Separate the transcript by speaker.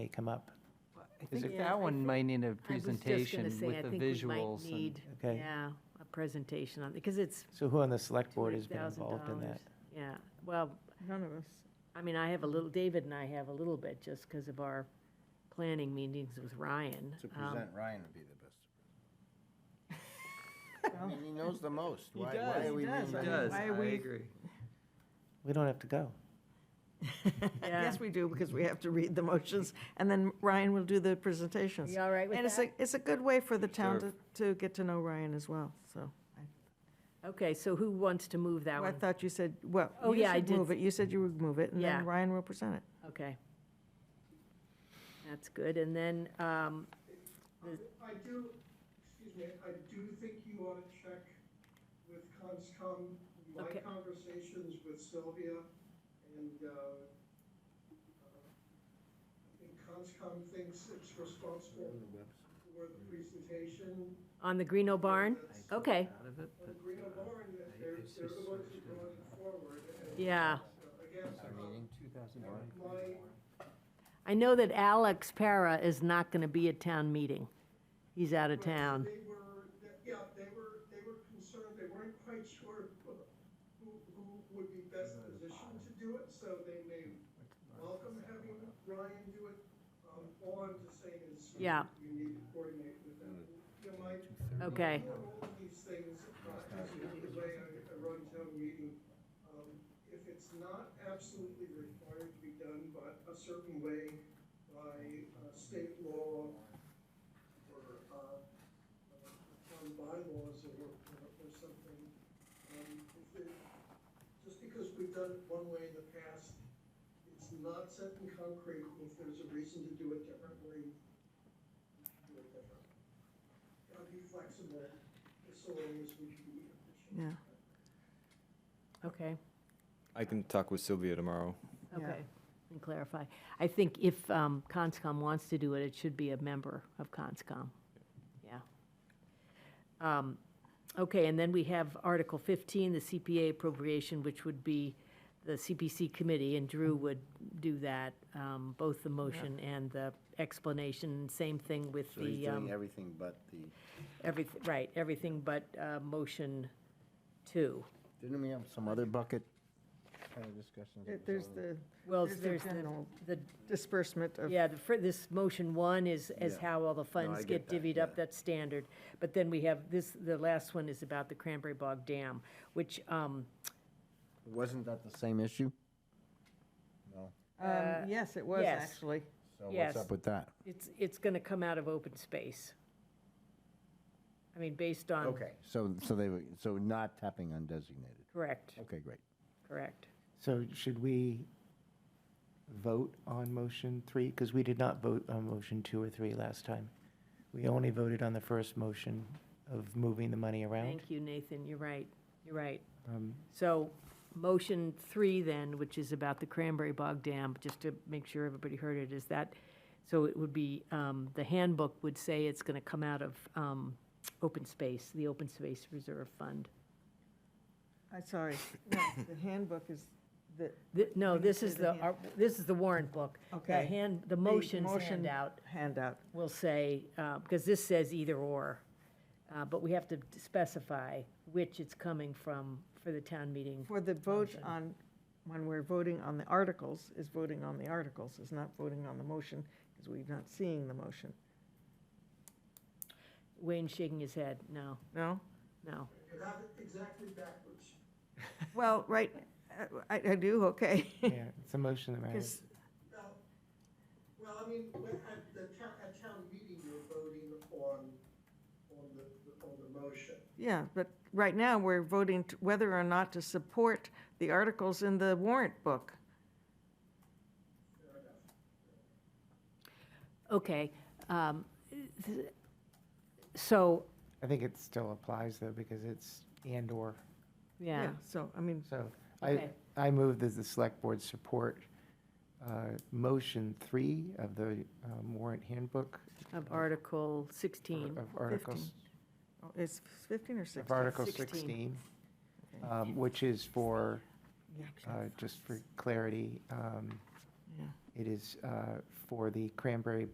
Speaker 1: may come up.
Speaker 2: I
Speaker 3: Is
Speaker 2: think-
Speaker 3: it-
Speaker 2: yeah, I
Speaker 3: That one
Speaker 2: think-
Speaker 3: might need a
Speaker 2: I was just gonna
Speaker 3: presentation with
Speaker 2: say, I
Speaker 3: the
Speaker 2: think we might
Speaker 3: visuals. and-
Speaker 2: need,
Speaker 1: Okay.
Speaker 2: Yeah, a presentation on, because it's
Speaker 1: So who on the select board has been involved in
Speaker 2: $200,000.
Speaker 1: that?
Speaker 2: Yeah, well,
Speaker 4: None of us.
Speaker 2: I mean, I have a little, David and I have a little bit, just because of our planning meetings with Ryan.
Speaker 5: To
Speaker 2: Um,
Speaker 5: present, Ryan would be the best. I mean, he knows the most. Why, why are we?
Speaker 4: does,
Speaker 5: reinventing
Speaker 4: He does, I
Speaker 5: it?
Speaker 4: agree.
Speaker 1: We don't have to go.
Speaker 2: Yeah.
Speaker 4: Yes, we do, because we have to read the motions, and then Ryan will do the presentations.
Speaker 2: You all right with
Speaker 4: And it's a,
Speaker 2: that?
Speaker 4: it's a good way for the town to,
Speaker 3: Sure.
Speaker 4: to get to know Ryan as well, so. I-
Speaker 2: Okay, so who wants to move that
Speaker 4: I
Speaker 2: one?
Speaker 4: thought you said, well,
Speaker 2: Oh,
Speaker 4: you
Speaker 2: yeah, I
Speaker 4: should
Speaker 2: did
Speaker 4: move it, you said you would move it, and
Speaker 2: Yeah.
Speaker 4: then Ryan will present it.
Speaker 2: Okay. That's good, and then, um,
Speaker 6: I do, excuse me, I do think you ought to check with Conscom, my
Speaker 2: Okay.
Speaker 6: conversations with Sylvia, and, uh, uh, I think Conscom thinks it's responsible for the presentation.
Speaker 2: on the Greeno Barn?
Speaker 6: That's-
Speaker 2: Okay,
Speaker 3: Out of it,
Speaker 6: On
Speaker 3: but,
Speaker 6: Green
Speaker 3: uh,
Speaker 6: Barn, that they're,
Speaker 3: it's
Speaker 6: they're
Speaker 3: just
Speaker 6: the ones who
Speaker 3: sort of
Speaker 6: brought it forward, and.
Speaker 2: Yeah.
Speaker 6: uh, Again,
Speaker 5: Our meeting?
Speaker 6: my,
Speaker 2: I know that Alex Para is not gonna be at town meeting. He's out of town.
Speaker 6: They were, yeah, they were, they were concerned, they weren't quite sure who, who would be best positioned to do it, so they may welcome having Ryan do it. Um, all I'm just saying is.
Speaker 2: Yeah.
Speaker 6: You need to coordinate with them. You know, my.
Speaker 2: Okay.
Speaker 6: I run all of these things, uh, as you know, the way I, I run town meeting, um, if it's not absolutely required to be done by a certain way by uh, state law or, uh, on bylaws or, or or something. Um, if it- Just because we've done it one way in the past, it's not set in concrete, and if there's a reason to do it differently, do it differently. Gotta be flexible, so long as we can be efficient.
Speaker 4: Yeah,
Speaker 2: Okay.
Speaker 7: I can talk with Sylvia tomorrow.
Speaker 4: Yeah.
Speaker 2: Okay, and clarify. I think if um, Conscom wants to do it, it should be a member of Conscom. Yeah. Um, Okay, and then we have Article 15, the CPA appropriation, which would be the CPC committee, and Drew would do that, um, both the motion and the explanation. Same thing with
Speaker 5: So he's
Speaker 2: the, um,
Speaker 5: doing everything but the,
Speaker 2: everyth- right, everything but uh, motion two.
Speaker 5: didn't we have some other bucket kind of discussions? that was
Speaker 4: there's
Speaker 5: on?
Speaker 4: the,
Speaker 2: Well,
Speaker 4: There's the
Speaker 2: there's the-
Speaker 4: general-
Speaker 2: the
Speaker 4: disbursement of,
Speaker 2: Yeah, the, fir- this motion one is, is
Speaker 5: Yeah.
Speaker 2: how all the funds
Speaker 5: I
Speaker 2: get
Speaker 5: get that,
Speaker 2: divvied up,
Speaker 5: yeah.
Speaker 2: that's standard. But then we have this, the last one is about the Cranberry Bog Dam, which, um,
Speaker 5: Wasn't that the same issue? No.
Speaker 2: uh,
Speaker 4: um, yes, it was,
Speaker 2: yes.
Speaker 4: actually.
Speaker 5: So what's
Speaker 2: Yes.
Speaker 5: up with that?
Speaker 2: it's, it's gonna come out of open space. I mean, based on,
Speaker 5: Okay, so, so they were, so not tapping undesignated.
Speaker 2: correct,
Speaker 5: Okay, great.
Speaker 2: correct.
Speaker 1: So should we vote on motion three? Because we did not vote on motion two or three last time. We only voted on the first motion of moving the money around.
Speaker 2: Thank you, Nathan, you're right, you're right.
Speaker 1: Um,
Speaker 2: So, motion three then, which is about the Cranberry Bog Dam, just to make sure everybody heard it, is that, so it would be, um, the handbook would say it's gonna come out of, um, open space, the open space reserve fund.
Speaker 4: I'm sorry, no, the handbook is the,
Speaker 2: Th- No,
Speaker 4: When you
Speaker 2: this
Speaker 4: say
Speaker 2: is
Speaker 4: the
Speaker 2: the,
Speaker 4: hand-
Speaker 2: our- this is the warrant book. The
Speaker 4: Okay.
Speaker 2: hand, the
Speaker 4: the
Speaker 2: motion
Speaker 4: motion-
Speaker 2: handout
Speaker 4: handout.
Speaker 2: will say, uh, because this says either or, uh, but we have to specify which it's coming from for the town meeting.
Speaker 4: For the vote
Speaker 2: Motion.
Speaker 4: on, when we're voting on the articles, is voting on the articles, is not voting on the motion, because we're not seeing the motion.
Speaker 2: Wayne shaking his head, no,
Speaker 4: No?
Speaker 2: no.
Speaker 6: You have it exactly backwards.
Speaker 4: Well, right, I, I do, okay.
Speaker 1: Yeah, it's a motion that matters.
Speaker 4: Because,
Speaker 6: Now, well, I mean, when- at the town, at town meeting, you're voting on, on the, on the motion.
Speaker 4: yeah, but right now, we're voting t- whether or not to support the articles in the warrant book.
Speaker 6: Fair enough.
Speaker 2: Okay, um, th- so,
Speaker 1: I think it still applies though, because it's and/or.
Speaker 2: yeah,
Speaker 4: So, I mean,
Speaker 1: So I,
Speaker 2: Okay.
Speaker 1: I move that the select board support uh, motion three of the um, warrant handbook
Speaker 2: of Article 16.
Speaker 1: of articles,
Speaker 4: oh, it's 15 or 16?
Speaker 1: of Article
Speaker 2: 16.
Speaker 1: 16, um, which is for, uh, just for clarity, um,
Speaker 4: Yeah.
Speaker 1: It is uh, for the Cranberry